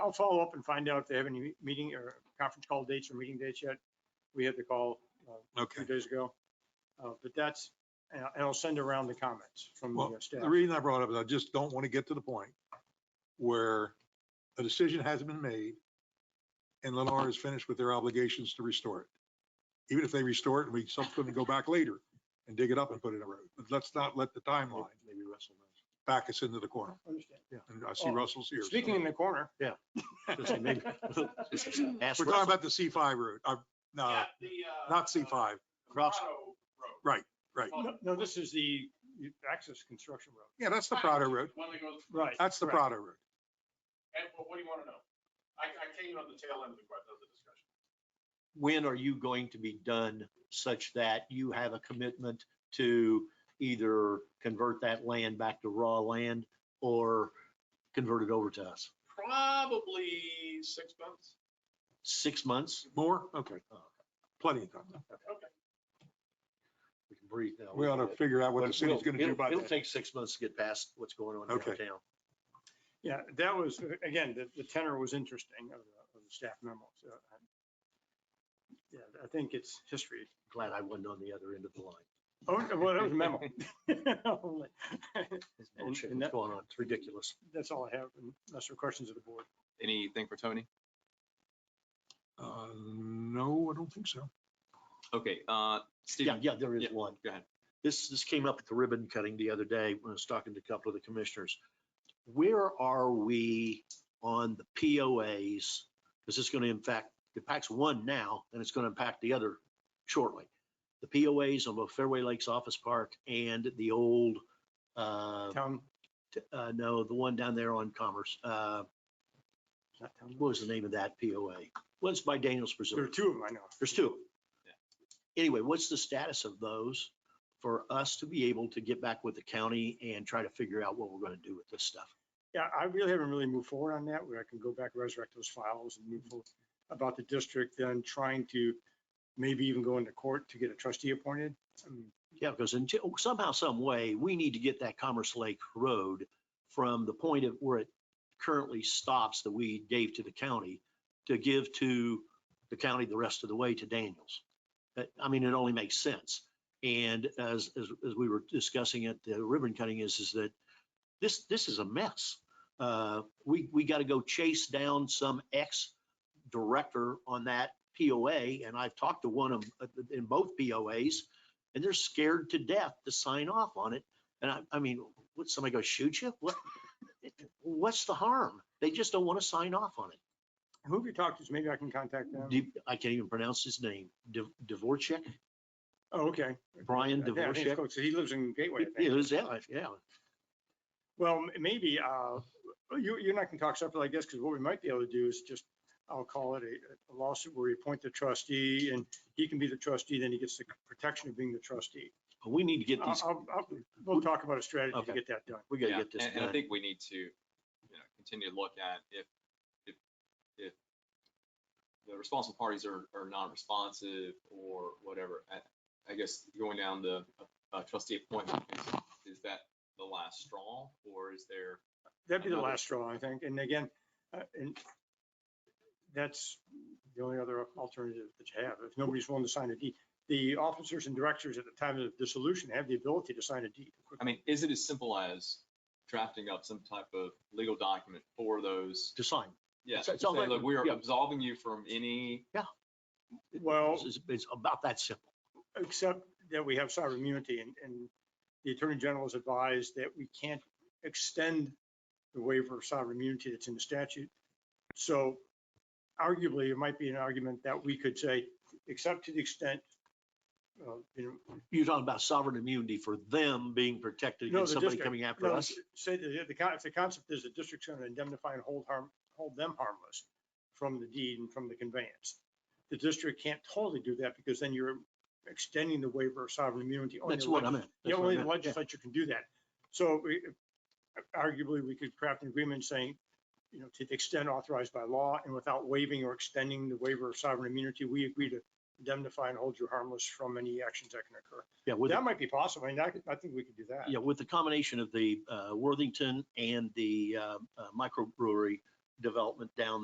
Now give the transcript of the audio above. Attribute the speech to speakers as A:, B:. A: I'll follow up and find out if they have any meeting or conference call dates or meeting dates yet. We had the call uh,
B: Okay.
A: two days ago. Uh, But that's, and I'll- and I'll send around the comments from the
B: Well,
A: uh, staff.
B: the reason I brought it up is I just don't want to get to the point where a decision hasn't been made and Lennar is finished with their obligations to restore it. Even if they restore it and we subsequently go back later and dig it up and put it in a road. But let's not let the timeline
C: Maybe Russell knows.
B: back us into the corner.
A: Understand.
B: And I see
A: Oh,
B: Russell's here. so-
A: Speaking in the corner.
C: Yeah. Ask
B: We're talking
C: Russell.
B: about the C5 road. Uh, no,
D: uh,
B: not C5.
C: Cross-
B: Right, right.
A: No, No, this is the access construction road.
B: Yeah, that's the Prado road.
D: One that goes,
A: Right.
B: That's the Prado road.
D: and well, what do you want to know? I, I came in on the tail end of the, que- of the discussion.
C: When are you going to be done such that you have a commitment to either convert that land back to raw land or convert it over to us?
D: Probably six months.
C: Six months? Uh,
B: More? Okay. Plenty of time.
C: We can breathe now.
B: We ought to figure out what the
C: But
B: city's
C: we'll-
B: going to do
C: it'll-
B: by
C: It'll
B: then.
C: take six months to get past what's going on
B: Okay.
C: downtown.
A: Yeah, that was, again, the, the tenor was interesting of the, of the staff memos. Uh, I- Yeah, I think it's history.
C: Glad I wasn't on the other end of the line.
A: Oh, well, that was a memo. Only.
C: It's
A: And-
C: bullshit
A: and
C: What's
A: that-
C: going on? It's ridiculous.
A: That's all I have, unless there are questions of the board.
E: Anything for Tony?
B: Uh, no, I don't think so.
E: Okay, uh,
C: Yeah,
E: Stephen,
C: yeah, there is
E: yeah,
C: one.
E: go ahead.
C: This, this came up at the ribbon cutting the other day when I was talking to a couple of the commissioners. Where are we on the POAs? Because it's going to impact, impacts one now and it's going to impact the other shortly. The POAs on both Fairway Lakes Office Park and the old, uh,
A: Town,
C: t- uh, no, the one down there on Commerce. Uh,
A: not town.
C: what was the name of that POA? Well, it's by Daniels
A: There are
C: Preserve.
A: two of them, I know.
C: There's two. Anyway, what's the status of those for us to be able to get back with the county and try to figure out what we're gonna do with this stuff?
A: Yeah, I really haven't really moved forward on that, where I can go back, resurrect those files and move forward about the district, then trying to maybe even go into court to get a trustee appointed. I mean,
C: Yeah, because until, somehow, some way, we need to get that Commerce Lake Road from the point of where it currently stops that we gave to the county to give to the county the rest of the way to Daniels. But, I mean, it only makes sense. And as, as, as we were discussing at the ribbon cutting is, is that this, this is a mess. Uh, we, we got to go chase down some ex-director on that POA. And I've talked to one of, in both POAs and they're scared to death to sign off on it. And I, I mean, would somebody go shoot you? What? What's the harm? They just don't want to sign off on it.
A: Who have you talked to? Maybe I can contact them.
C: Div- I can't even pronounce his name. Div- Dvorak,
A: Oh, okay.
C: Brian
A: Yeah, I think it's
C: Dvorak.
A: close. He lives in Gateway, I think.
C: Yeah, it was- yeah, yeah.
A: Well, m- maybe, uh, you, you and I can talk separately, I guess, because what we might be able to do is just, I'll call it a a lawsuit where you appoint the trustee and he can be the trustee, then he gets the protection of being the trustee.
C: But We need to get
A: I'll,
C: these,
A: I'll, I'll- we'll talk about a strategy to
C: Okay.
A: get that done.
C: we gotta
E: yeah,
C: get this
E: and, and I
C: done.
E: think we need to, you know, continue to look at if, if, if the responsible parties are, are non-responsive or whatever. I, I guess going down the uh, trustee appointment, is, is that the last straw or is there?
A: That'd be the
E: Another-
A: last straw, I think. And again, uh, and that's the only other alternative that you have. If nobody's willing to sign a deed, the officers and directors at the time of dissolution have the ability to sign a deed.
E: I mean, is it as simple as drafting up some type of legal document for those?
C: To sign.
E: Yeah,
C: It's-
E: to
C: it's
E: say,
C: all right,
E: look, we are
C: yeah.
E: absolving you from any,
A: Well.
C: It's, it's about that simple.
A: except that we have sovereign immunity and, and the Attorney General has advised that we can't extend the waiver of sovereign immunity that's in the statute. So arguably, it might be an argument that we could say, except to the extent, uh, you
C: You're talking about sovereign immunity for them being protected
A: No,
C: against
A: the
C: somebody
A: district.
C: coming after
A: know,
C: us.
A: say that the, con- if the concept is the district's going to indemnify and hold harm, hold them harmless from the deed and from the conveyance. The district can't totally do that because then you're extending the waiver of sovereign immunity. only
C: That's what
A: allegedly.
C: I meant.
A: Yeah,
C: That's what I
A: only the
C: meant. Yeah.
A: legislature can do that. So we- arguably, we could craft an agreement saying, you know, to the extent authorized by law and without waiving or extending the waiver of sovereign immunity, we agree to indemnify and hold you harmless from any actions that can occur.
C: Yeah, with the
A: That might be possible. I mean, I, could- I think we could do that.
C: Yeah, with the combination of the uh, Worthington and the uh, uh, microbrewery, development down